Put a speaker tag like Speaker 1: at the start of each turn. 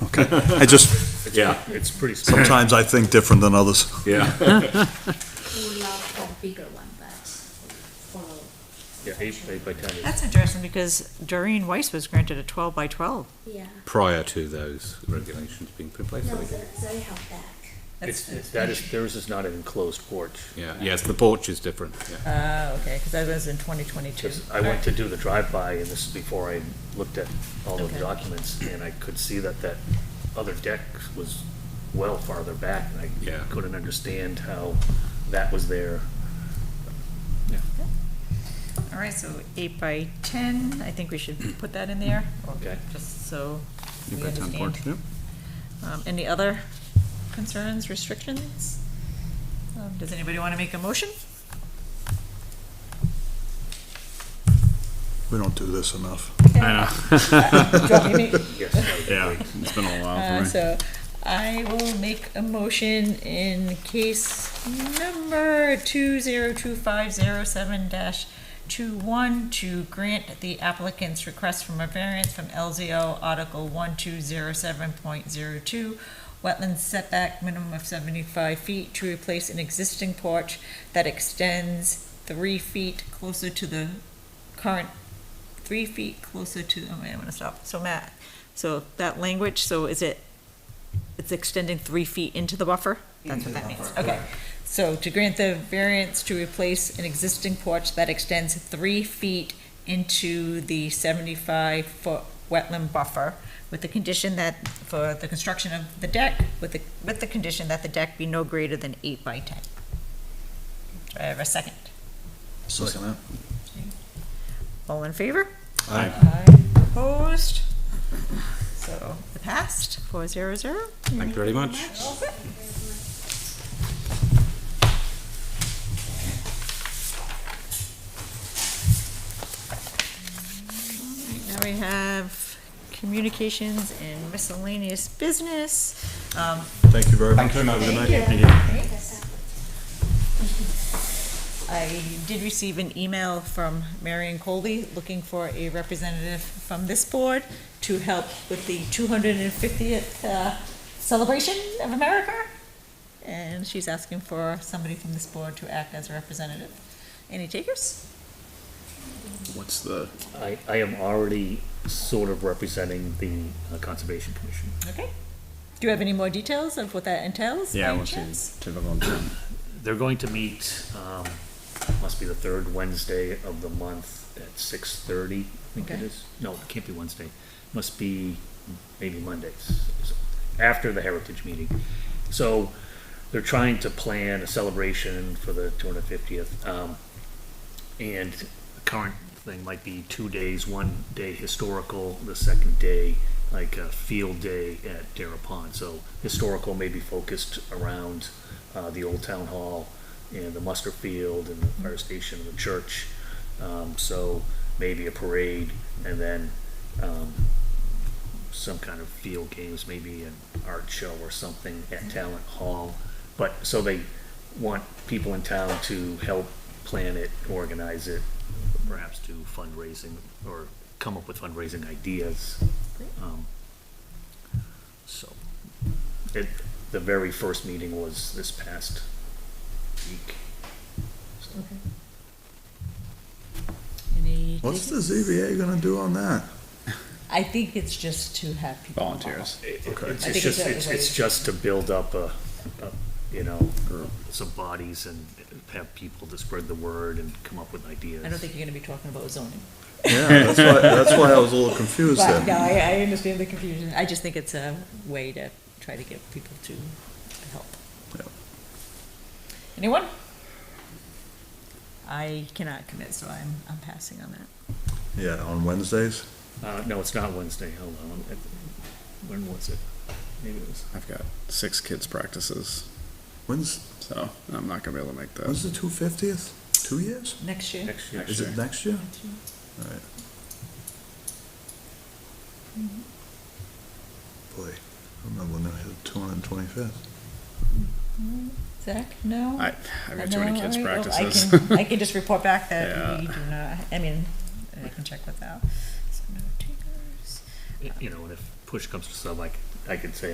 Speaker 1: I just,
Speaker 2: Yeah,
Speaker 3: It's pretty small.
Speaker 1: sometimes I think different than others.
Speaker 2: yeah.
Speaker 4: would love a bigger one, but follow
Speaker 3: Yeah, eight eight by ten.
Speaker 5: That's interesting because Doreen Weiss was granted a twelve by twelve.
Speaker 4: Yeah,
Speaker 2: Prior to those regulations being put in place,
Speaker 4: no,
Speaker 2: I think.
Speaker 4: the- they have back.
Speaker 3: It's, it's, that is, theirs is not an enclosed porch.
Speaker 2: Yeah, yes, the porch is different, yeah.
Speaker 5: Ah, okay, because that was in twenty twenty-two.
Speaker 3: 'Cause I went to do the drive-by, and this is before I looked at all of the
Speaker 5: Okay.
Speaker 3: documents, and I could see that that other deck was well farther back, and
Speaker 2: Yeah.
Speaker 3: I couldn't understand how that was there.
Speaker 5: All right, so eight by ten, I think we should put that in there.
Speaker 3: Okay.
Speaker 5: Just so we
Speaker 1: By town board,
Speaker 5: understand.
Speaker 1: yeah.
Speaker 5: Um, any other concerns, restrictions? Um, does anybody want to make a motion?
Speaker 1: We don't do this enough.
Speaker 3: Yes, I
Speaker 1: Yeah,
Speaker 3: agree.
Speaker 1: it's been a
Speaker 5: Uh, so I will make a motion in case number two zero two five zero seven dash two one to grant the applicant's request from a variance from LZO Article one two zero seven point zero two, wetland setback minimum of seventy-five feet to replace an existing porch that extends three feet closer to the current, three feet closer to, oh, wait, I'm gonna stop. So Matt, so that language, so is it, it's extending three feet into the buffer? That's what that means, okay. So to grant the variance to replace an existing porch that extends three feet into the seventy-five foot wetland buffer with the condition that, for the construction of the deck, with the, with the condition that the deck be no greater than eight by ten. Do I have a second?
Speaker 1: Second that.
Speaker 5: All in favor?
Speaker 1: Aye.
Speaker 5: Opposed? So it passed, four zero zero.
Speaker 2: Thank you very much.
Speaker 5: Now we have communications and miscellaneous business. Um,
Speaker 1: Thank you very much. Good night.
Speaker 5: I did receive an email from Marion Colby looking for a representative from this board to help with the 250th uh, celebration of America. And she's asking for somebody from this board to act as a representative. Any takers?
Speaker 1: What's the?
Speaker 3: I, I am already sort of representing the uh, Conservation Commission.
Speaker 5: Okay. Do you have any more details of what that entails? by chance?
Speaker 6: typical town.
Speaker 3: They're going to meet, um, must be the third Wednesday of the month at six thirty, I think it
Speaker 5: Okay.
Speaker 3: is. No, it can't be Wednesday. Must be maybe Mondays, so, after the Heritage meeting. So they're trying to plan a celebration for the two hundred fiftieth. Um, and the current thing might be two days, one day historical, the second day like a field day at Dara Pond. So historical may be focused around uh, the old town hall and the muster field and the fire station and the church. Um, so maybe a parade and then um, some kind of field games, maybe an art show or something at Talent Hall. But so they want people in town to help plan it, organize it, perhaps do fundraising or come up with fundraising ideas. Um, so it, the very first meeting was this past week. So,
Speaker 5: Any
Speaker 1: What's the
Speaker 5: takers?
Speaker 1: ZBA gonna do on that?
Speaker 5: I think it's just to have people.
Speaker 6: Volunteers.
Speaker 3: it- it-
Speaker 1: Okay.
Speaker 3: It's
Speaker 5: I
Speaker 3: it's
Speaker 5: think
Speaker 3: just,
Speaker 5: it's-
Speaker 3: it's, it's just to build up a, a, you know,
Speaker 1: Or-
Speaker 3: some bodies and have people to spread the word and come up with ideas.
Speaker 5: I don't think you're gonna be talking about zoning.
Speaker 1: Yeah, that's why, that's why I was uh, a little confused
Speaker 5: But, no,
Speaker 1: there.
Speaker 5: I, I understand the confusion. I just think it's a way to try to get people to help.
Speaker 1: Yep.
Speaker 5: Anyone? I cannot commit, so I'm, I'm passing on that.
Speaker 1: Yeah, on Wednesdays?
Speaker 3: Uh, no, it's not Wednesday, hold on, It- when was it? Maybe it was,
Speaker 6: I've got six kids' practices,
Speaker 1: When's,
Speaker 6: so I'm not gonna be able to make
Speaker 1: when's
Speaker 6: those.
Speaker 1: the two fiftieth? Two years?
Speaker 5: Next year?
Speaker 3: next year.
Speaker 1: Is it next year? Alright. Boy, I remember when I had two hundred and twenty-fifth.
Speaker 5: Zach, no?
Speaker 6: I, I've got too many
Speaker 5: No,
Speaker 6: kids'
Speaker 5: all right, well,
Speaker 6: practices.
Speaker 5: I can, I can just report back that
Speaker 6: Yeah.
Speaker 5: we do not, I mean, I can check with that. So no takers.
Speaker 3: You know, and if push comes to shove, I c- I could say